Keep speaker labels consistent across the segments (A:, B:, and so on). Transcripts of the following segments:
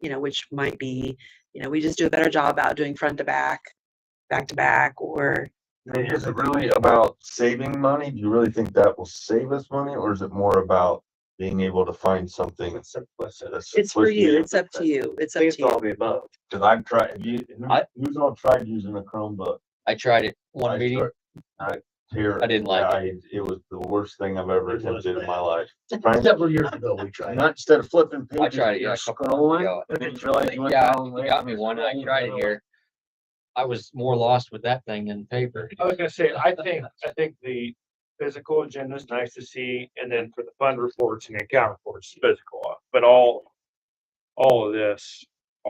A: you know, which might be, you know, we just do a better job about doing front to back, back to back, or
B: Is it really about saving money? Do you really think that will save us money, or is it more about being able to find something? It's
A: it's for you. It's up to you. It's up
C: think
A: to
C: it's all
A: you.
C: the above.
B: Cause I've tried, have you,
C: I-
B: who's all tried using a Chromebook?
C: I tried it
B: I
C: one meeting.
B: start- I tear.
C: I didn't like it.
B: I- It was the worst thing I've ever
D: It was
B: attempted in
D: bad.
B: my life. Trying to,
D: Several years ago, we tried.
B: not instead of flipping
C: I
B: pages,
C: tried it, yeah,
B: you're
C: a couple months
B: scrolling.
C: ago.
B: And then you realize you went
C: Yeah,
B: down.
C: you got me one. I tried it here. I was more lost with that thing than paper.
E: I was gonna say, I think, I think the physical agenda is nice to see, and then for the fund reports and the account reports, physical, uh, but all. All of this,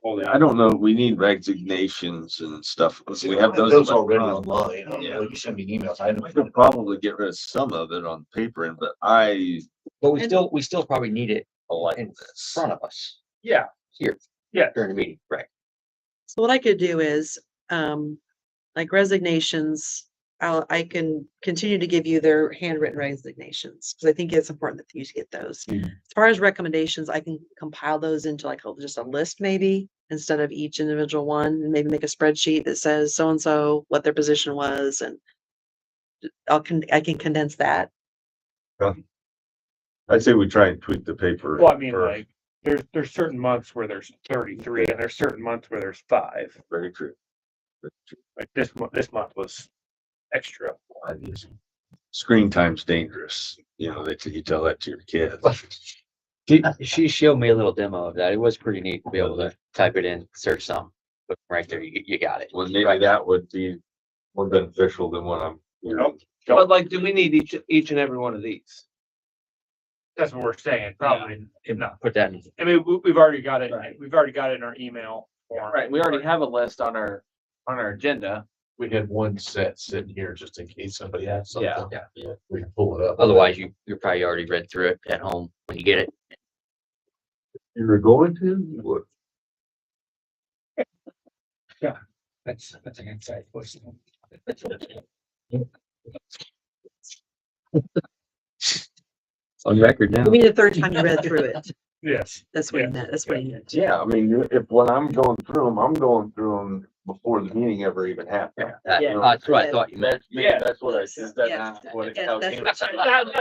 E: all
F: I
E: that,
F: don't know, we need resignations and stuff, we have those.
D: Those already online. I don't
F: Yeah.
D: know, You send me emails. I
F: We
D: don't.
F: could probably get rid of some of it on paper, but I
C: But we
A: And-
C: still, we still probably need it
F: like
C: in
F: this.
C: front of us
E: yeah,
C: here.
E: Yeah.
C: During the meeting, right?
A: So what I could do is, um, like resignations, I'll, I can continue to give you their handwritten resignations, because I think it's important that you get those.
F: Mm.
A: As far as recommendations, I can compile those into like a- just a list maybe, instead of each individual one, and maybe make a spreadsheet that says so-and-so, what their position was, and uh, I'll, con- I can condense that.
F: I'd say we try and tweak the paper.
E: well, I mean,
F: first.
E: like, there's, there's certain months where there's thirty-three, and there's certain months where there's five,
F: Very true.
E: like this month, this month was extra.
F: Screen time's dangerous, you know, they, you tell that to your kids.
C: She, she showed me a little demo of that. It was pretty neat to be able to type it in, search some, but right there, you, you got it.
F: Well, maybe that would be more beneficial than what I'm. you know,
G: But like, do we need each, each and every one of these?
E: That's what we're saying, probably not,
C: Put that in.
E: I mean, we, we've already got it,
G: Right.
E: we've already got it in our email. form.
G: Right, we already have a list on our, on our agenda.
D: We had one set sitting here just in case somebody had something.
C: yeah.
D: We can pull it up.
C: Otherwise, you, you probably already read through it at home when you get it.
F: You were going to, you would.
C: That's, that's an inside question. On record now.
A: You mean the third time you read through it?
E: Yes,
A: That's what he meant, that's what he meant.
B: Yeah, I mean, if, when I'm going through them, I'm going through them before the meeting ever even happened.
C: That-
A: Yeah.
C: Uh, That's what I thought you meant.
F: That's, me,
E: Yeah.
F: that's what I, said. that's
A: Yeah.
F: not what it,
A: Yeah,
F: how it
A: that's
F: came.
A: what
E: that's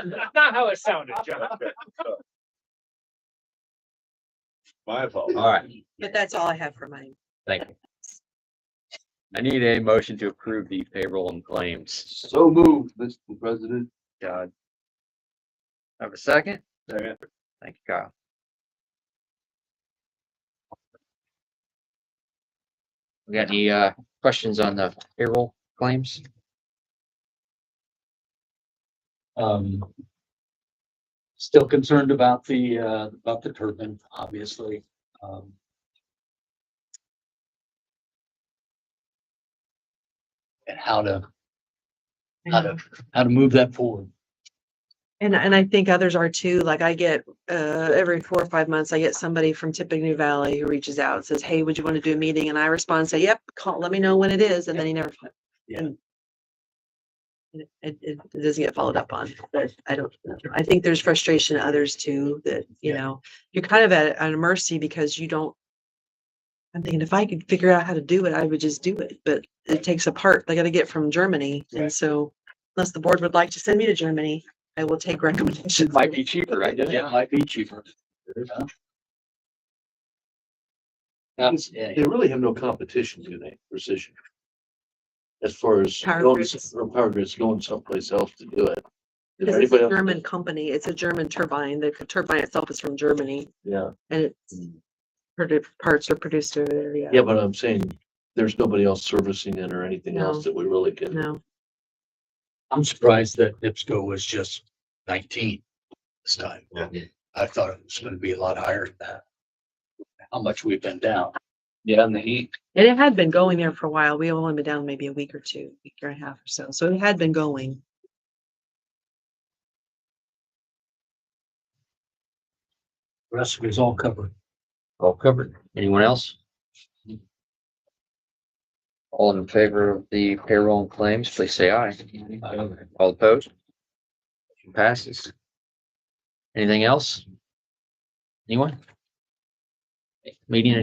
E: not, that's not how it sounded, John.
F: My fault.
C: All right,
A: But that's all I have for mine.
C: thank you. I need a motion to approve the payroll and claims.
G: So moved, Mr. President.
C: God. Have a second?
G: Second.
C: Thank you, Kyle. We got any, uh, questions on the payroll claims?
H: Um. Still concerned about the, uh, about the turbine, obviously, um. And how to, how to, how to move that forward.
A: And, and I think others are too, like I get, uh, every four or five months, I get somebody from Tippecanoe Valley who reaches out and says, hey, would you want to do a meeting? And I respond, say, yep, call, let me know when it is, and then he never.
H: Yeah.
A: and It, it, it doesn't get followed up on, but I don't, know. I think there's frustration in others too, that, you know, you're kind of at, at a mercy because you don't. I'm thinking if I could figure out how to do it, I would just do it, but it takes a part, they gotta get from Germany, and so unless the board would like to send me to Germany. I will take recommendations.
C: It might be cheaper, right?
H: It might be cheaper. That's, yeah,
D: They really have no competition, do they, precision? As far as
A: Power
D: going,
A: grids.
D: s- or power grids going someplace else to do it. If
A: Because it's a
D: anybody else-
A: German company, it's a German turbine, the turbine itself is from Germany
D: Yeah, Hmm.
A: and it's produ- parts are produced over there, yeah.
D: yeah, but I'm saying, there's nobody else servicing it or anything
A: No.
D: else that we really can.
A: No,
H: I'm surprised that NIPSCO was just nineteen this time.
B: Yeah.
H: I thought it was gonna be a lot higher than that. How much we've been down.
G: Yeah, and the heat.
A: and it had been going there for a while. We have only been down maybe a week or two, week and a half or so, so it had been going.
H: The Rest of it is all covered.
C: All covered. Anyone else? All in favor of the payroll and claims, please say aye. All opposed? Motion Passes. Anything else? Anyone? Meeting